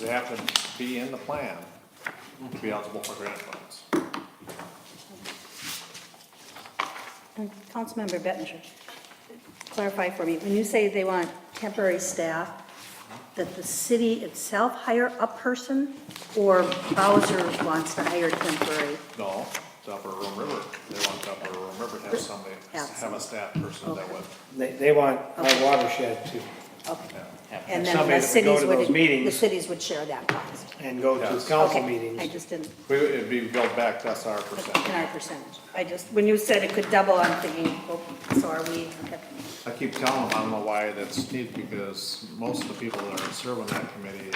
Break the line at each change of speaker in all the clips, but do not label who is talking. they have to be in the plan to be eligible for grant funds.
And Mm, Councilmember Bettinger, clarify for me, when you say they want temporary staff, that the city itself hire a person, or Bowser wants to hire temporary?
No, the Upper Room River, they want the Upper Room River to have somebody,
Yeah.
have a staff person that would,
They, they want our watershed to,
Okay.
have
And then the
somebody that would go
cities
to
would,
those
the
meetings
cities would share that cost.
and go
Yes.
to council
Okay, I
meetings.
just didn't,
we, it'd be built back, that's our
in
percentage.
our percentage. I just, when you said it could double, I'm thinking, oh, so are we, okay.
I keep telling them, I don't know why that's needed, because most of the people that are serving that committee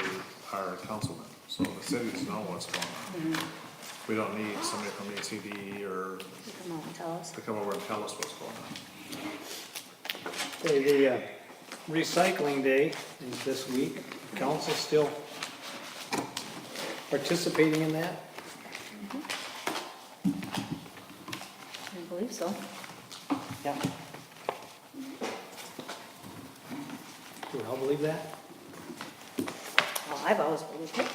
are councilmen, so the cities know what's going on. We don't need somebody from E ACD or
Come on, tell us.
to come over and tell us what's going on.
Okay, the uh, recycling day is this week. Council still participating in that?
I believe so.
Yeah. Do we all believe that?
Well, I've always believed it.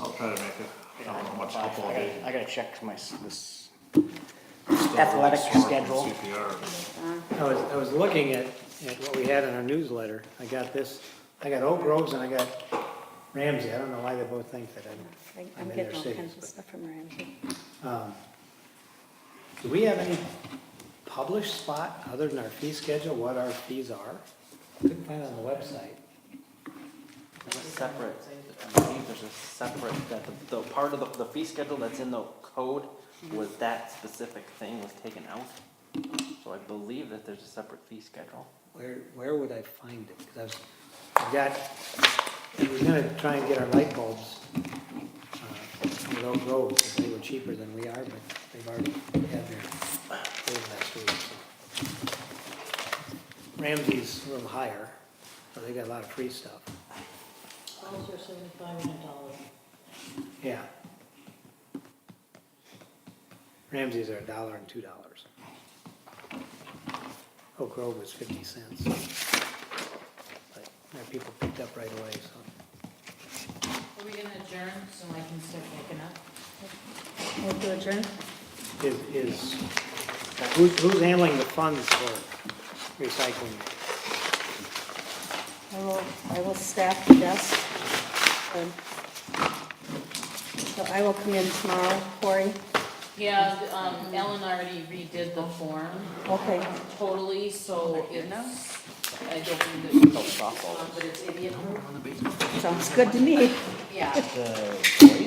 I'll try to make it, I don't know how much
I
football
gotta-
game.
I gotta check my, s- this,
still
Athletic
works for
schedule.
CPR.
I was, I was looking at, at what we had in our newsletter. I got this, I got Oak Groves and I got Ramsey. I don't know why they both think that
I-
I'm, I'm
I'm
in their
getting all
cities.
kinds of
but-
stuff from Ramsey.
Um, Do we have any published spot other than our fee schedule, what our fees are? Couldn't find it on the website.
There's a separate, I believe there's a separate, that the, the part of the, the fee schedule that's in the code was that specific thing was taken out. So I believe that there's a separate fee schedule.
Where, where would I find it? Because I was, I got, I was gonna try and get our light bulbs uh, at Oak Grove, because they were cheaper than we are, but they've already had their bid last week, so. Ramsey's a little higher, so they got a lot of free stuff.
Those are seventy-five and a dollar.
Yeah. Ramsey's are a dollar and two dollars. Oak Grove was fifty cents. But Our people picked up right away, so.
Are we gonna adjourn so I can start picking up?
Move to adjourn?
Is, is, who's, who's handling the funds for recycling?
I will, I will staff the desk. Um, So I will come in tomorrow, Corey.
Yeah, um, Ellen already redid the form
Okay,
totally, so it's, I don't
Oh,
think that, uh,
softball.
um, but it's idiot proof.
sounds good to me.
Yeah,
the